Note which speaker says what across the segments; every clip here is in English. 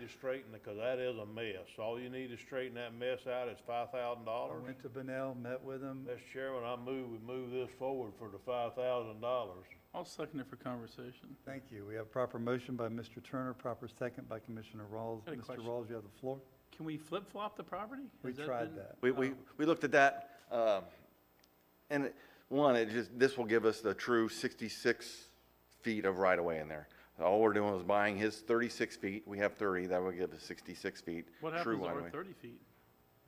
Speaker 1: to straighten, because that is a mess. All you need to straighten that mess out is five thousand
Speaker 2: I
Speaker 1: dollars.
Speaker 2: went to Benel, met with him.
Speaker 1: Mr. Chairman, I move, we move this forward for the five thousand dollars.
Speaker 3: I'll second it for conversation.
Speaker 2: Thank you. We have proper motion by Mr. Turner, proper second by Commissioner Rawls.
Speaker 3: Got a
Speaker 2: Mr.
Speaker 3: question.
Speaker 2: Rawls, you have the floor.
Speaker 3: Can we flip-flop the property?
Speaker 2: We
Speaker 3: Has
Speaker 2: tried
Speaker 3: been-
Speaker 2: that.
Speaker 4: We, we, we looked at that, um, and it- one, it just, this will give us the true sixty-six feet of right-of-way in there. All we're doing is buying his thirty-six feet, we have thirty, that would give us sixty-six feet,
Speaker 3: What
Speaker 4: true
Speaker 3: happens to our
Speaker 4: right-of-way.
Speaker 3: thirty feet?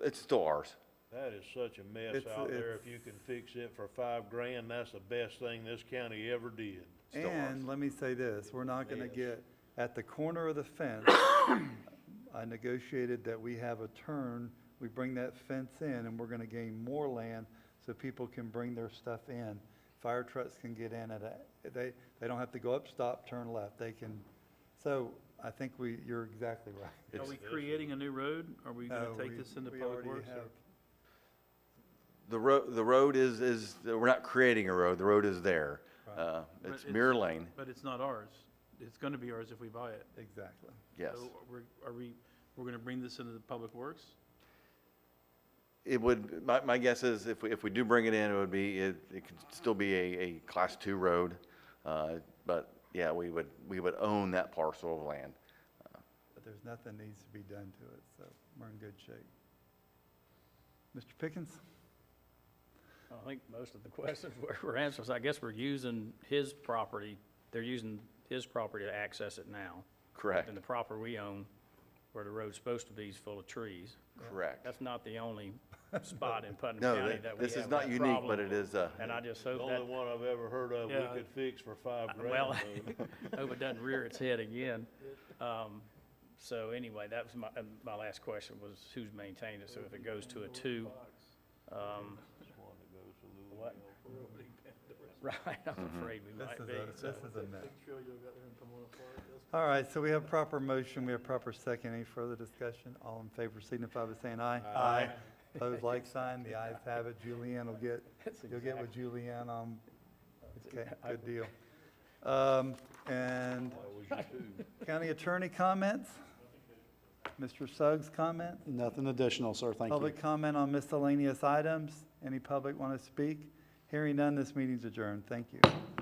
Speaker 4: It's still ours.
Speaker 1: That is such a mess
Speaker 2: It's-
Speaker 1: out there. If
Speaker 2: it's-
Speaker 1: you can fix it for five grand, that's the best thing this county ever did.
Speaker 4: Still ours.
Speaker 2: And let me say this, we're not gonna
Speaker 1: Yes.
Speaker 2: get, at the corner of the fence, I negotiated that we have a turn, we bring that fence in, and we're gonna gain more land so people can bring their stuff in. Fire trucks can get in at a, they, they don't have to go up, stop, turn left, they can, so I think we, you're exactly right.
Speaker 3: Are
Speaker 4: It's-
Speaker 3: we creating a new road? Are we
Speaker 2: No,
Speaker 3: gonna take
Speaker 2: we-
Speaker 3: this into
Speaker 2: we
Speaker 3: public
Speaker 2: already
Speaker 3: works? or-
Speaker 2: have-
Speaker 4: The road, the road is, is, we're not creating a road, the road is there. Uh,
Speaker 3: But
Speaker 4: it's
Speaker 3: it's-
Speaker 4: mirror lane,
Speaker 3: But it's not ours. It's gonna be ours if we buy it.
Speaker 2: Exactly.
Speaker 4: yes.
Speaker 3: So we're, are we, we're gonna bring this into the public works?
Speaker 4: It would, my, my guess is if, we- if we do bring it in, it would be, it, it could still be a, a class two road. Uh, but yeah, we would, we would own that parcel of land.
Speaker 2: But there's nothing needs to be done to it, so we're in good shape. Mr. Pickens?
Speaker 5: I think most of the questions were- were answered, so I guess we're using his property, they're using his property to access it now.
Speaker 4: Correct,
Speaker 5: And the property we own, where the road's supposed to be, is full of trees.
Speaker 4: correct.
Speaker 5: That's not the only spot in Putnam
Speaker 4: No,
Speaker 5: County
Speaker 4: that-
Speaker 5: that we
Speaker 4: this is
Speaker 5: have
Speaker 4: not
Speaker 5: that
Speaker 4: unique, but
Speaker 5: problem.
Speaker 4: it is, uh,
Speaker 5: And I just
Speaker 1: The
Speaker 5: hope
Speaker 1: only
Speaker 5: that,
Speaker 1: one I've ever heard of
Speaker 3: Yeah.
Speaker 1: we could fix for five grand.
Speaker 5: well,
Speaker 1: though.
Speaker 5: hope it doesn't rear its head again. Um, So anyway, that was my, uh, my last question was who's maintained it, so if it goes to a two, um, what? Right, I'm afraid we
Speaker 2: This
Speaker 5: might
Speaker 2: is
Speaker 5: be,
Speaker 2: a,
Speaker 5: so.
Speaker 2: this is a mess. All right, so we have proper motion, we have proper second. Any further discussion? All in favor signify by saying aye. Aye. Opposed, like sign. The ayes have it. Julianne will get,
Speaker 5: That's
Speaker 2: you'll get with Julianne on, okay,
Speaker 5: I
Speaker 2: good deal. Um, and
Speaker 1: That was you too.
Speaker 2: county attorney comments? Mr. Suggs comment?
Speaker 6: Nothing additional, sir, thank you.
Speaker 2: Public comment on miscellaneous items? Any public want to speak? Hearing none, this meeting's adjourned. Thank you.